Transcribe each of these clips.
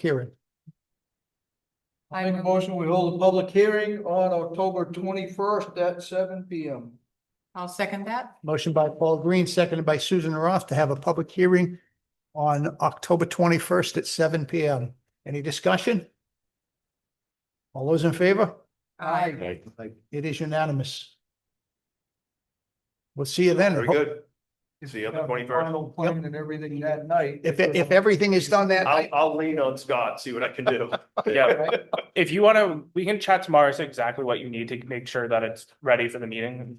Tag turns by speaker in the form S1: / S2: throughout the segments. S1: hearing.
S2: I
S3: Make a
S2: move-
S3: motion, we hold a public hearing on October twenty-first at seven P M.
S2: I'll second that.
S1: Motion by Paul Green, seconded by Susan Roth to have a public hearing on October twenty-first at seven P M. Any discussion? All those in favor?
S2: Aye.
S1: It is unanimous. We'll see you then.
S4: Very good. See you on the 21st.
S3: Final plan and everything that night. uh,
S1: If, if everything is done that
S4: I'll,
S1: night,
S4: I'll lean on Scott, see what I can do.
S5: Yeah, if you wanna, we can chat tomorrow, as to exactly what you need to make sure that it's ready for the meeting.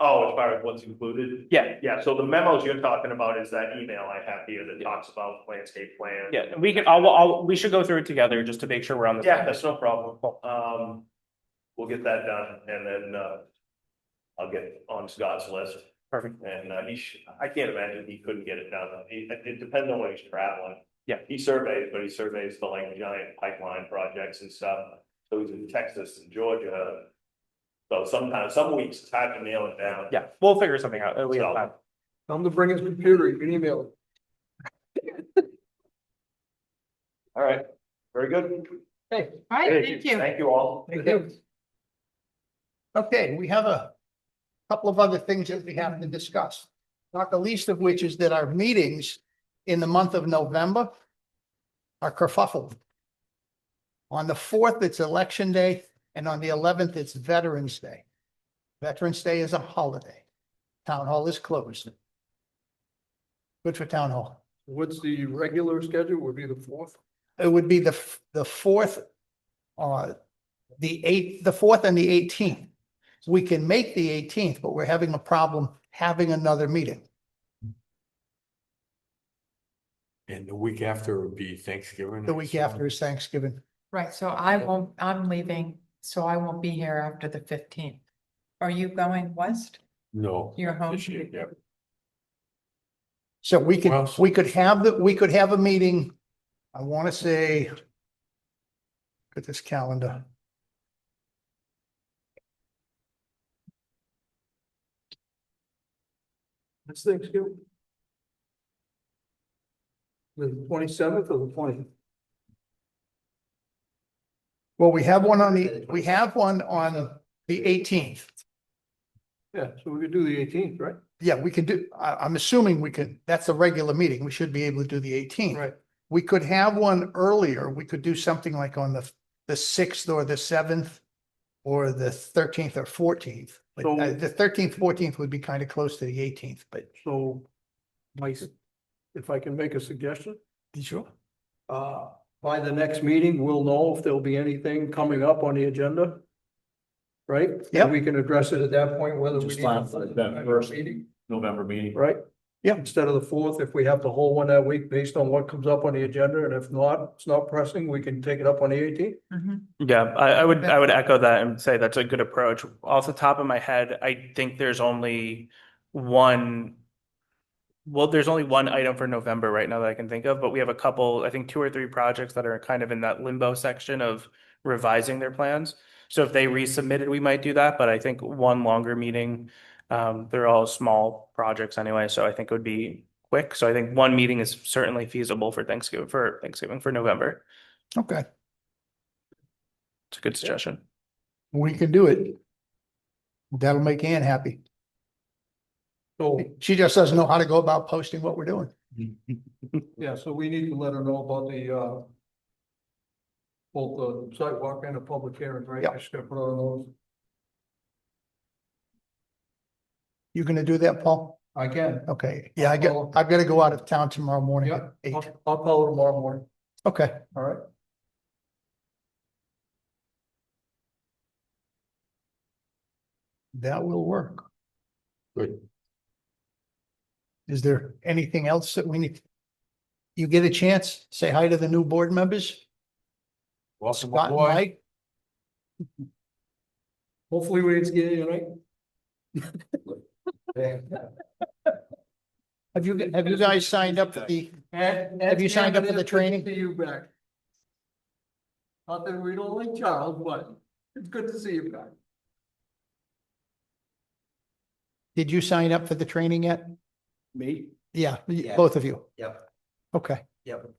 S4: Oh, as far as what's included?
S5: Yeah,
S4: Yeah, so the memos you're talking about is that email I have here that talks about landscape plan.
S5: yeah, we can, I'll, I'll, we should go through it together just to make sure we're on the.
S4: Yeah, that's no problem. Um, we'll get that done and then, uh, I'll get on Scott's list
S5: Perfect,
S4: and, uh, he should, I can't imagine he couldn't get it done. It, it depends on where he's traveling.
S5: Yeah.
S4: He surveys, but he surveys the like giant pipeline projects and stuff. So he's in Texas and Georgia. So sometimes, some weeks, it's hard to nail it down.
S5: yeah, we'll figure something out, Uh, we have time.
S3: Tell him to bring his computer, you can email it.
S4: All right, very good.
S3: Hey.
S2: Right, thank you.
S4: Thank you all.
S1: okay, we have a couple of other things that we have to discuss. Not the least of which is that our meetings in the month of November are kerfuffled. On the fourth, it's election day, and on the eleventh, it's Veterans Day. Veterans Day is a holiday. Town hall is closed. Good for town hall.
S3: What's the regular schedule, would be the fourth?
S1: It would be the, f- the fourth, uh, the eighth, the fourth and the eighteenth. We can make the eighteenth, but we're having a problem having another meeting.
S6: And the week after would be Thanksgiving.
S1: The week
S6: so-
S1: after is Thanksgiving.
S2: Right, so I won't, I'm leaving, so I won't be here after the fifteenth. Are you going west?
S6: No.
S2: You're home?
S6: This year, yeah.
S1: So we could,
S6: Well-
S1: we could have the, we could have a meeting, I want to say, look at this calendar.
S3: That's Thanksgiving. The twenty-seventh or the twentieth?
S1: Well, we have one on the, we have one on the eighteenth.
S3: Yeah, so we could do the eighteenth, right?
S1: Yeah, we can do, I, I'm assuming we can, that's a regular meeting. We should be able to do the eighteenth.
S3: Right.
S1: We could have one earlier. We could do something like on the, the sixth or the seventh or the thirteenth or fourteenth. But
S3: So-
S1: uh, the thirteenth, fourteenth would be kind of close to the eighteenth, but.
S3: So, my, s- if I can make a suggestion?
S1: Sure.
S3: Uh, by the next meeting, we'll know if there'll be anything coming up on the agenda. Right? And
S1: Yep.
S3: We can address it at that point, whether we.
S7: Just
S3: need
S7: plan for that first.
S3: meeting,
S7: November meeting.
S3: Right?
S1: Yep.
S3: Instead of the fourth, if we have to hold one that week based on what comes up on the agenda, and if not, it's not pressing, we can take it up on the eighteenth.
S2: Mhm.
S5: Yeah, I, I would, I would echo that and say that's a good approach. Off the top of my head, I think there's only one. Well, there's only one item for November right now that I can think of, but we have a couple, I think two or three projects that are kind of in that limbo section of revising their plans. So if they resubmitted, we might do that, but I think one longer meeting, um, they're all small projects anyway, so I think it would be quick. So I think one meeting is certainly feasible for Thanksgiving, for Thanksgiving, for November.
S1: Okay,
S5: It's a good suggestion.
S1: we can do it. That'll make Ann happy.
S3: So,
S1: She just doesn't know how to go about posting what we're doing.
S3: yeah, so we need to let her know about the, uh, both the sidewalk and the public hearing, right?
S1: Yep.
S3: I should have put on those.
S1: You gonna do that, Paul?
S3: I can.
S1: Okay, yeah, I got,
S3: Uh, I'll-
S1: I've got to go out of town tomorrow morning
S3: Yeah,
S1: at eight.
S3: I'll, I'll call her tomorrow morning,
S1: Okay,
S3: all right?
S1: that will work.
S6: Good.
S1: Is there anything else that we need? You get a chance, say hi to the new board members,
S6: Welcome
S1: Scott and
S6: aboard.
S1: Mike.
S3: Hopefully we didn't scare you, right?
S1: Have you, have you guys signed up for the,
S3: Have
S1: you signed up for the training?
S3: See you back. Not that we don't like Charles, but it's good to see you back.
S1: did you sign up for the training yet?
S7: Me?
S1: Yeah, y-
S7: Yeah.
S1: both of you.
S7: Yep.
S1: Okay,
S7: Yep.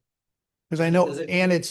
S1: because I know
S7: Does it-
S1: Ann had